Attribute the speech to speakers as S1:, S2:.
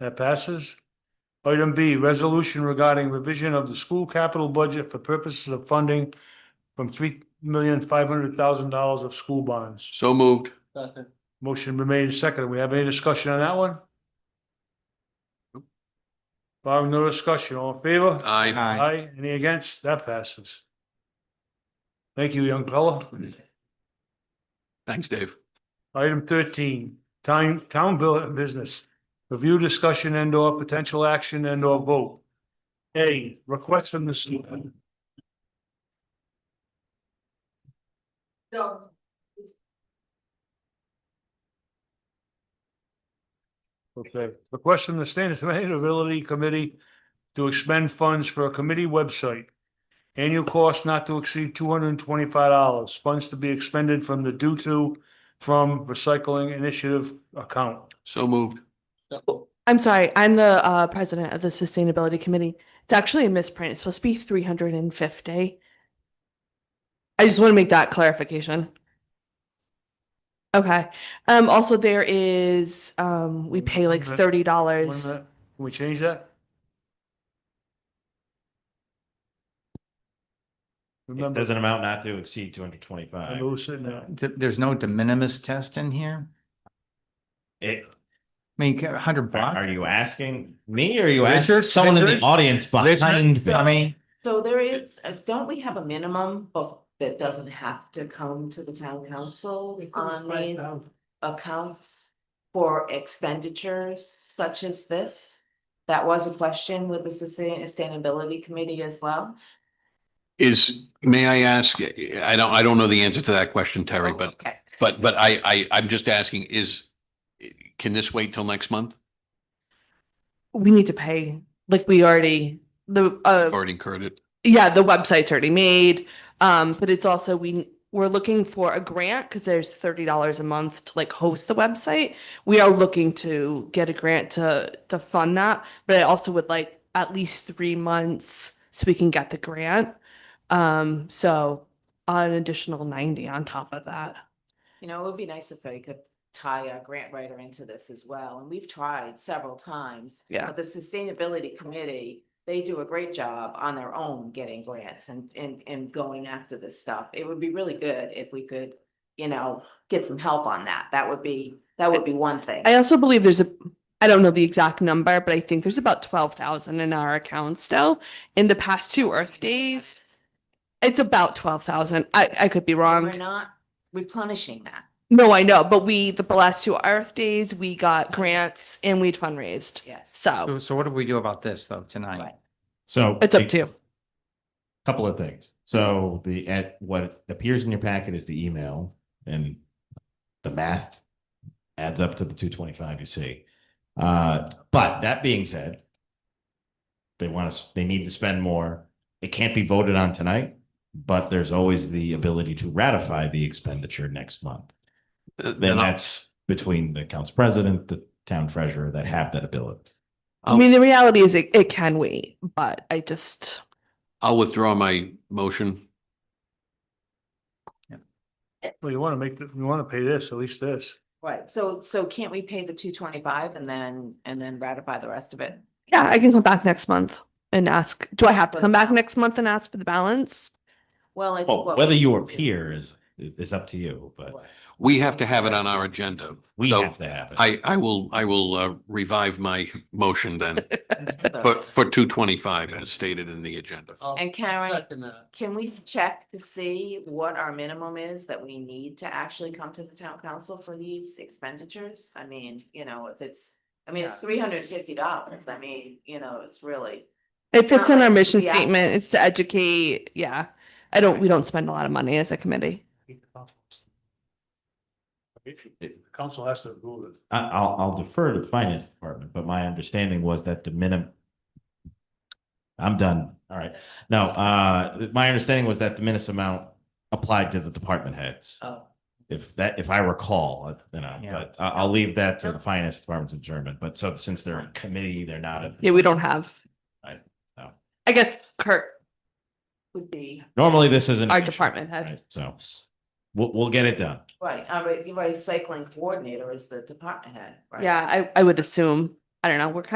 S1: That passes. Item B, resolution regarding revision of the school capital budget for purposes of funding from three million five hundred thousand dollars of school bonds.
S2: So moved.
S3: Second.
S1: Motion been made and seconded. We have any discussion on that one? Barring no discussion, all in favor?
S2: Aye.
S1: Aye. Any against? That passes. Thank you, young fella.
S2: Thanks, Dave.
S1: Item thirteen, town, town bill business. Review discussion and or potential action and or vote. A, request from the school.
S4: So,
S1: Okay, request from the Standards Sustainability Committee to expend funds for a committee website. Annual cost not to exceed two hundred and twenty-five dollars. Funds to be expended from the due to from recycling initiative account.
S2: So moved.
S5: I'm sorry, I'm the uh, president of the sustainability committee. It's actually a misprint. It's supposed to be 350. I just want to make that clarification. Okay. Um, also, there is, um, we pay like
S1: Wait a minute. Wait a minute,
S5: $30.
S1: Can we change that? Remember,
S6: There's an amount not to exceed two hundred
S1: I
S6: twenty-five.
S1: remember who's sitting there.
S7: Th- There's no de minimis test in here?
S6: It,
S7: I mean, a hundred
S6: are
S7: bucks?
S6: are you asking me or are you
S7: Richard?
S6: asking someone in the
S7: Richard?
S6: audience behind
S7: Richard,
S6: me?
S7: I mean,
S4: so there is, uh, don't we have a minimum, but that doesn't have to come to the town council on these accounts for expenditures such as this? That was a question with the Sustain- Sustainability Committee as well.
S2: Is, may I ask, I don't, I don't know the answer to that question, Terry, but,
S4: Oh, Okay.
S2: but, but I, I, I'm just asking is, can this wait till next month?
S5: We need to pay, like we already, the, uh,
S2: I've already incurred it.
S5: yeah, the website's already made. Um, but it's also, we, we're looking for a grant because there's $30 a month to like host the website. We are looking to get a grant to, to fund that, but I also would like at least three months so we can get the grant. Um, so an additional 90 on top of that.
S4: You know, it would be nice if I could tie a grant writer into this as well, and we've tried several times.
S5: Yeah.
S4: But the Sustainability Committee, they do a great job on their own getting grants and, and, and going after this stuff. It would be really good if we could, you know, get some help on that. That would be, that would be one thing.
S5: I also believe there's a, I don't know the exact number, but I think there's about 12,000 in our account still. In the past two Earth days, it's about 12,000. I, I could be wrong.
S4: We're not replenishing that.
S5: No, I know, but we, the last two Earth days, we got grants and we'd fundraised.
S4: Yes.
S5: So
S7: so what do we do about this though tonight?
S4: Right.
S6: So.
S5: it's up to you.
S6: Couple of things. So the, at what appears in your packet is the email and the math adds up to the two twenty-five you see. Uh, but that being said, they want to, they need to spend more. It can't be voted on tonight, but there's always the ability to ratify the expenditure next month.
S2: Uh,
S6: Then
S2: and I-
S6: that's between the council president, the town treasurer that have that ability. um,
S5: I mean, the reality is it, it can wait, but I just,
S2: I'll withdraw my motion.
S1: Well, you wanna make, the- you wanna pay this, at least this.
S4: Right, so, so can't we pay the two twenty-five and then, and then ratify the rest of it?
S5: yeah, I can come back next month and ask, do I have to come back next month and ask for the balance?
S4: Well, I think.
S6: Well,
S4: what
S6: whether
S4: we
S6: you
S4: should do-
S6: appear is, is up to you, but
S4: Right.
S2: We have to have it on our agenda.
S6: we
S2: uh, So
S6: have to have it.
S2: I, I will, I will uh, revive my motion then, but for two twenty-five as stated in the agenda.
S4: And Karen,
S3: Second that.
S4: can we check to see what our minimum is that we need to actually come to the town council for these expenditures? I mean, you know, if it's, I mean, it's three hundred and fifty dollars, I mean, you know, it's really.
S5: It fits in our mission
S4: Yeah.
S5: statement. It's to educate. Yeah. I don't, we don't spend a lot of money as a committee.
S1: Council has to approve it.
S6: I, I'll, I'll defer to the finance department, but my understanding was that the minimum. I'm done. All right. No, uh, my understanding was that the minimum amount applied to the department heads.
S4: Oh.
S6: If that, if I recall, you know,
S7: Yeah.
S6: but I, I'll leave that to the finance department's adjournment, but so since they're a committee, they're not a.
S5: Yeah, we don't have.
S6: Right, so.
S5: I guess Kurt would be,
S6: Normally, this isn't. an
S5: Our
S6: issue,
S5: department head.
S6: right? So we'll, we'll get it done.
S4: Right, our recycling coordinator is the department head, right?
S5: yeah, I, I would assume. I don't know, we're kind